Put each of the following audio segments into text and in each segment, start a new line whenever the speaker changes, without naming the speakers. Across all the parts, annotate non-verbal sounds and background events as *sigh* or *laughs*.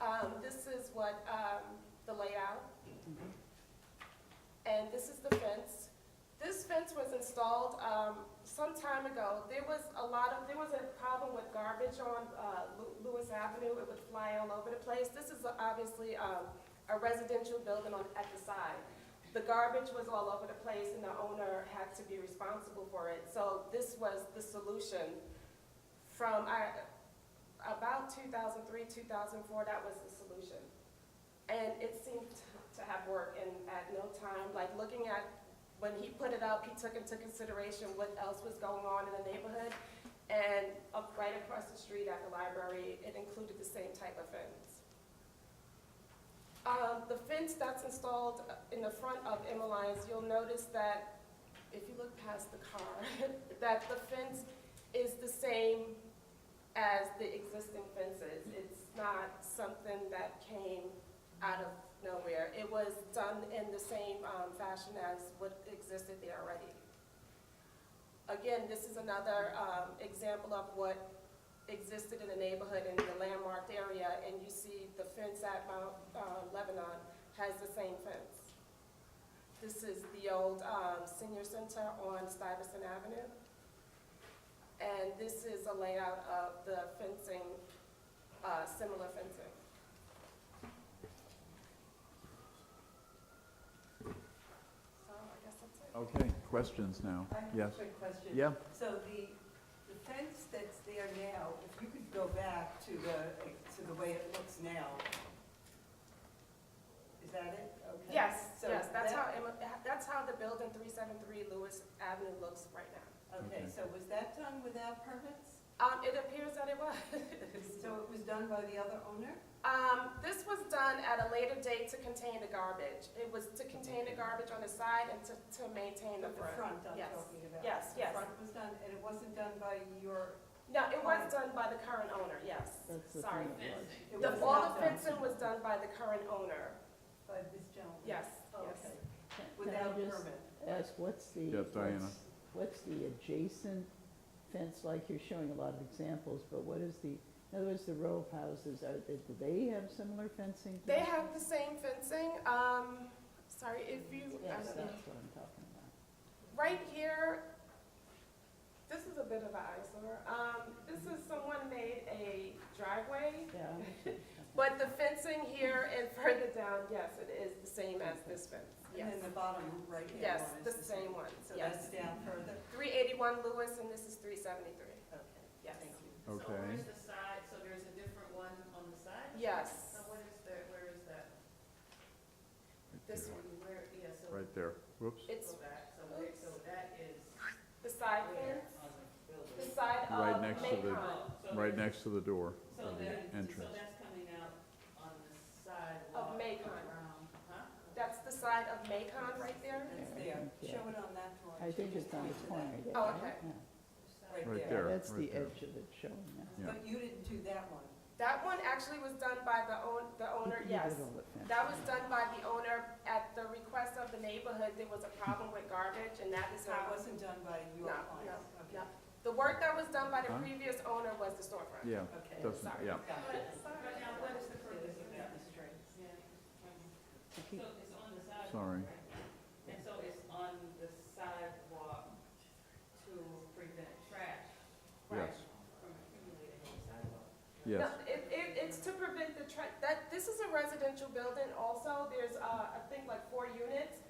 Um, um, was a lot of, there was a problem with garbage on uh, Lew- Lewis Avenue, it would fly all over the place. This is obviously um, a residential building on, at the side. The garbage was all over the place and the owner had to be responsible for it. So this was the solution from, I, about 2003, 2004, that was the solution. And it seemed to have worked and at no time, like looking at, when he put it up, he took into consideration what else was going on in the neighborhood. And up right across the street at the library, it included the same type of fence. Uh, the fence that's installed in the front of Emmeline's, you'll notice that, if you look past the car, *laughs* that the fence is the same as the existing fences. It's not something that came out of nowhere. It was done in the same um, fashion as what existed there already. Again, this is another um, example of what existed in the neighborhood in the landmarked area, and you see the fence at Mount uh, Lebanon has the same fence. This is the old um, senior center on Stuyvesant Avenue. And this is a layout of the fencing, uh, similar fencing. So I guess that's it.
Okay, questions now?
I have a
Yes.
quick question.
Yeah,
So the, the fence that's there now, if you could go back to the, to the way it looks now, is that it? Okay.
Yes,
So
yes, that's how,
that-
Emma- that's how the building 373 Lewis Avenue looks right now.
Okay.
Okay, so was that done without permits?
*laughs* Um, It appears that it was.
So it was done by the other owner?
Um, This was done at a later date to contain the garbage. It was to contain the garbage on the side and to to maintain the
The
front.
front I'm
Yes.
talking about.
Yes,
The
yes.
front was done, and it wasn't done by your,
No, it was done by the current owner, yes. Sorry.
it was
The- All
not
the
done
fencing was done by the current owner,
by this gentleman?
yes,
Oh,
yes.
Okay,
Can- Can
without
I just
permit?
ask, what's the?
Yeah, Diana.
what's- What's the adjacent fence, like you're showing a lot of examples, but what is the, in other words, the row of houses, are, they- do they have similar fencing? to
They
this?
have the same fencing, um, sorry, if you, I
uh,
Yes,
don't know.
that's what I'm talking about.
right here, this is a bit of an eyesore. Um, this is someone made a driveway,
Yeah. I understand.
but the fencing here and further down, yes, it is the same as this fence, yes.
And then the bottom right hand
Yes,
one
the
is the
same one,
So
yes.
that's down further?
Three eighty-one Lewis and this is three seventy-three,
Okay,
yes.
thank you.
So
Okay.
where's the side, so there's a different one on the side?
Yes,
So what is the, where is that?
this
Yeah.
one,
Where, yeah, so go
right there. Whoops.
it's
back, so where, so that is
the side
where
fence,
on the
the
building?
side
Right
of
next to the-
Macon.
Oh, so
Right
there's-
next to the door
So
of
that,
the
so
entrance.
that's coming out on the side
Of
wall
Macon.
around, huh?
That's the side of Macon right there?
That's
Yeah, I
there,
think, yeah.
show it on that drawing.
I think
She just
it's on the
pointed
corner.
that.
there,
Oh,
right?
okay.
Yeah.
Right
Yeah,
there,
That's
right
the
there.
edge of it showing now.
Yeah.
But you didn't do that one.
That one actually was done by the own, the owner,
You did
yes.
all the fencing.
That was done by the owner at the request of the neighborhood. There was a problem with garbage and that is
So it
how.
wasn't done by your
No,
client?
no,
Okay.
no. The work that was done by the
Huh?
previous owner was the storefront.
Yeah,
Okay.
doesn't,
Sorry.
yeah.
Got it.
But now what is the purpose of that? Yeah.
To
So
keep-
it's on the side.
Sorry.
And so it's on the sidewalk to prevent trash.
Yes.
From accumulating on the sidewalk.
Yes,
No, It, it, it's to prevent the tra that, this is a residential building also, there's, uh, I think like four units,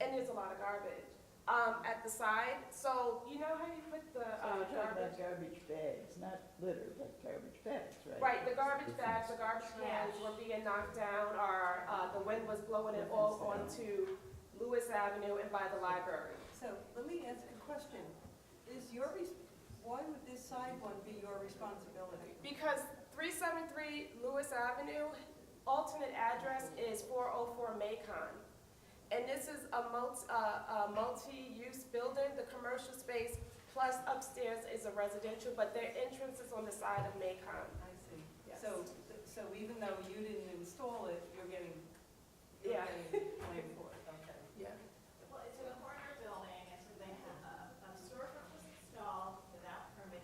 and there's a lot of garbage, um, at the side, so, you know how you put the,
So you're
uh,
talking about
garbage?
garbage bags, not litter, but garbage bags, right?
Right, the garbage bags, the garbage cans were being knocked down, or, uh, the wind was blowing it all onto Lewis Avenue and by the library.
So let me ask a question. Is your, res- why would this side one be your responsibility?
Because three seven three Lewis Avenue, alternate address is four oh four Macon. And this is a multi, uh, a multi-use building, the commercial space plus upstairs is a residential, but their entrance is on the side of Macon.
I see.
Yes.
So, so even though you didn't install it, you're getting, you're
Yeah.
getting blamed for